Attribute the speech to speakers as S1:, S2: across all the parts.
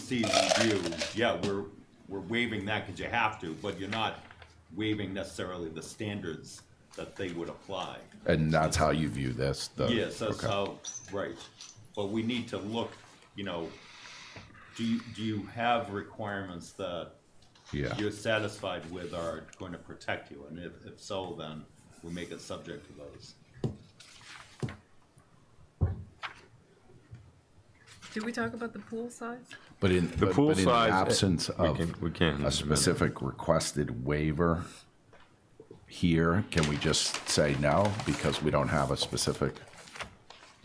S1: HDC review, yeah, we're, we're waiving that because you have to, but you're not waiving necessarily the standards that they would apply.
S2: And that's how you view this? the-
S1: Yes, that's
S2: Oh, okay.
S1: how, right, but we need to look, you know, do you, do you have requirements that
S2: Yeah.
S1: you're satisfied with are going to protect you, and if, if so, then we make it subject to those.
S3: Did we talk about the pool size?
S2: But in,
S4: The
S2: but-
S4: pool
S2: but in the
S4: size, eh,
S2: absence
S4: we
S2: of
S4: can- we can,
S2: a
S4: minute.
S2: specific requested waiver here, can we just say no because we don't have a specific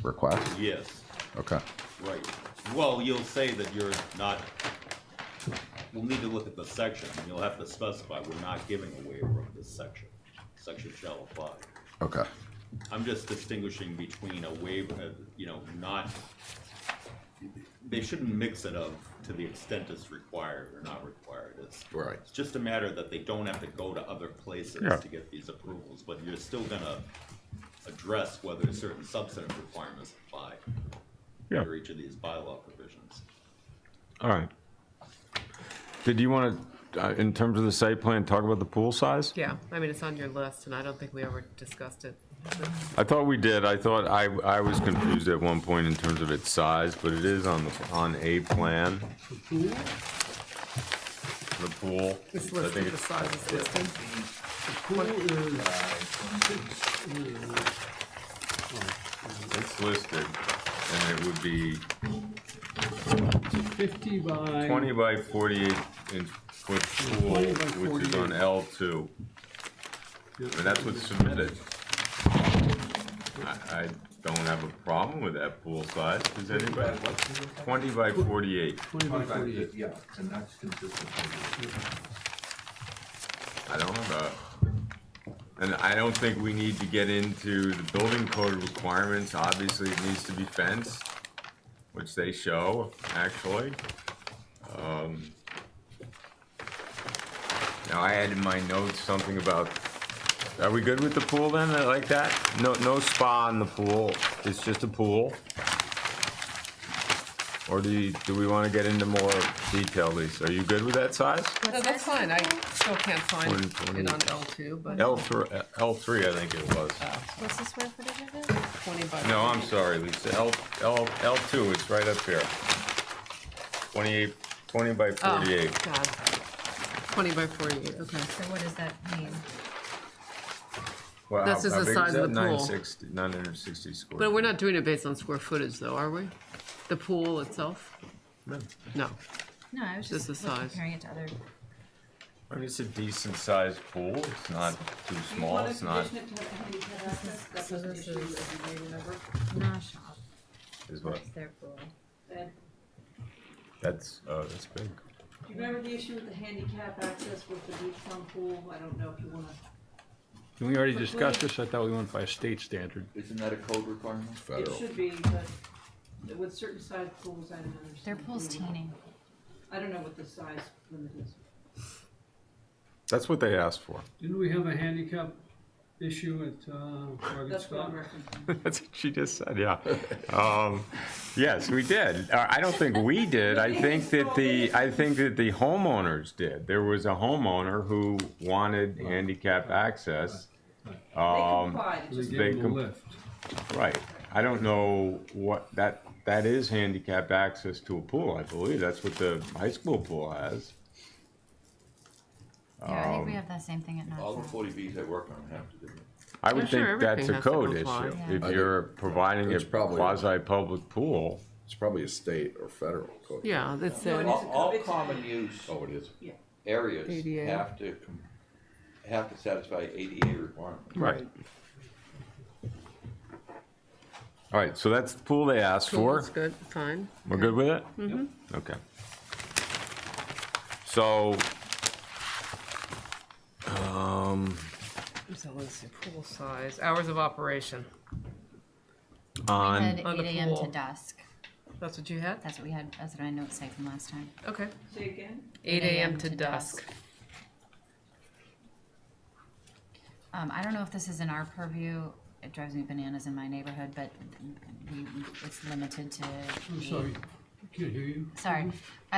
S2: request?
S1: Yes,
S2: Okay,
S1: right, well, you'll say that you're not, we'll need to look at the section, and you'll have to specify, we're not giving a waiver of this section, section shall apply.
S2: okay,
S1: I'm just distinguishing between a waiver, uh, you know, not, they shouldn't mix it up to the extent it's required or not required. It's
S2: Right.
S1: It's just a matter that they don't have to go to other places
S4: Yeah.
S1: to get these approvals, but you're still gonna address whether certain substantive requirements apply
S4: Yeah.
S1: under each of these bylaw provisions.
S4: All right. Did you want to, in terms of the site plan, talk about the pool size?
S3: Yeah, I mean, it's on your list, and I don't think we ever discussed it.
S4: I thought we did. I thought, I, I was confused at one point in terms of its size, but it is on, the on a plan, the pool.
S3: It's
S4: I think
S3: listed, the
S4: it's-
S3: size is listed.
S5: Pool is six,
S4: It's listed, and it would be
S5: uh, fifty by.
S4: twenty by forty-eight inch foot pool,
S5: 20 by
S4: which is on
S5: 48.
S4: L two.
S5: Yeah.
S4: And that's what's submitted. I, I don't have a problem with that pool size, does anybody? Twenty by forty-eight,
S5: Twenty by forty-eight.
S6: Yeah, and that's consistent.
S4: I don't have a, and I don't think we need to get into the building code requirements, obviously it needs to be fenced, which they show, actually. Um, Now, I had in my notes something about, are we good with the pool then, I like that? No, no spa in the pool, it's just a pool? Or do you, do we wanna get into more detail, Lisa, are you good with that size?
S3: No, that's fine, I still can't find
S4: One,
S3: it
S4: twenty.
S3: on L two, but
S4: L three, L three, I think it was.
S7: What's the square footage of it?
S3: twenty by.
S4: No, I'm sorry, Lisa, L, L, L two, it's right up here. Twenty-eight, twenty by
S3: Oh,
S4: forty-eight.
S3: God. Twenty by forty-eight, okay.
S7: So what does that mean?
S4: Wow,
S3: This is
S4: how
S3: the
S4: big
S3: size of
S4: that?
S3: the pool.
S4: 960 960 square.
S3: But we're
S4: feet.
S3: not doing it based on square footage, though, are we? The pool itself? No.
S7: No, I was
S3: Just
S7: just
S3: the
S7: look-
S3: size.
S7: comparing it to other.
S4: I mean, it's a decent sized pool, it's not too small, it's not,
S8: So this is-
S7: No shop.
S4: is what,
S7: It's their pool.
S4: that's, uh, that's big.
S8: Do you remember the issue with the handicap access with the deep sun pool? I don't know if you wanna.
S9: Did we already discuss this? I thought we went by a state standard.
S6: Isn't that a code requirement?
S8: It
S2: federal.
S8: should be, but with certain size pools, I don't understand.
S7: Their pool's teeny.
S8: I don't know what the size limit is.
S4: That's what they asked for,
S5: Didn't we have a handicap issue at, uh, Morgan
S8: That's what
S5: Scott?
S8: I'm referencing.
S4: that's what she just said, yeah. Um, yes, we did, Uh, I don't think we did, I think that the, I think that the homeowners did. There was a homeowner who wanted handicap access.
S8: They
S4: Um,
S8: complied, it
S5: They
S8: just-
S5: gave
S4: big
S5: him a
S4: com-
S5: lift.
S4: Right, I don't know what, that, that is handicap access to a pool, I believe, that's what the high school pool has.
S7: Yeah, I think we have that same thing at
S6: All the
S7: North.
S6: forty Bs I work on have to do it.
S4: I
S3: Yeah,
S4: would
S3: sure,
S4: think that's
S3: everything
S4: a
S3: has to
S4: code
S3: comply.
S4: issue,
S7: Yeah.
S4: if
S2: I
S4: you're providing a
S2: It's probably-
S4: quasi-public pool.
S2: It's probably a state or federal code.
S3: Yeah, that's
S8: No, it
S3: it.
S8: is a
S6: All, all
S8: code.
S6: common use
S2: Oh, it is?
S8: Yeah.
S6: areas
S3: ADA.
S6: have to, com- have to satisfy ADA requirements.
S4: Right. All right, so that's the pool they asked for.
S3: That's good, Mm-hmm. fine.
S4: We're good with it? Okay. So, um,
S3: So let's see, pool size, hours of operation.
S7: We
S4: on,
S7: had
S3: On the
S7: eight AM
S3: pool.
S7: to dusk.
S3: That's what you had?
S7: That's what we had, that's what I note saved from last time.
S3: Okay.
S8: Say again?
S3: Eight AM to dusk.
S7: Um, I don't know if this is in our purview, it drives me bananas in my neighborhood, but we, it's limited to.
S5: I'm
S7: the-
S5: sorry, Can't hear you.
S7: sorry.